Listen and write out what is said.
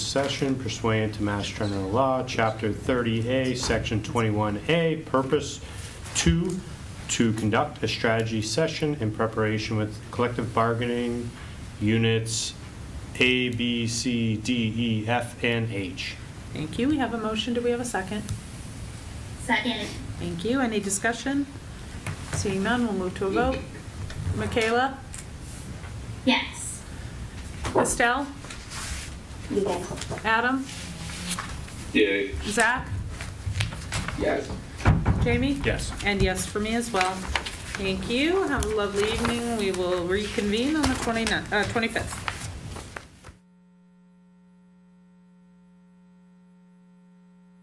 session pursuant to Mass General Law, Chapter 30A, Section 21A, Purpose 2, to conduct a strategy session in preparation with collective bargaining units A, B, C, D, E, F, and H. Thank you. We have a motion. Do we have a second? Second. Thank you. Any discussion? Seeing none, we'll move to a vote. Michaela? Yes. Estelle? Adam? Yay. Zach? Yes. Jamie? Yes. And yes for me as well. Thank you. Have a lovely evening. We will reconvene on the 29th, uh, 25th.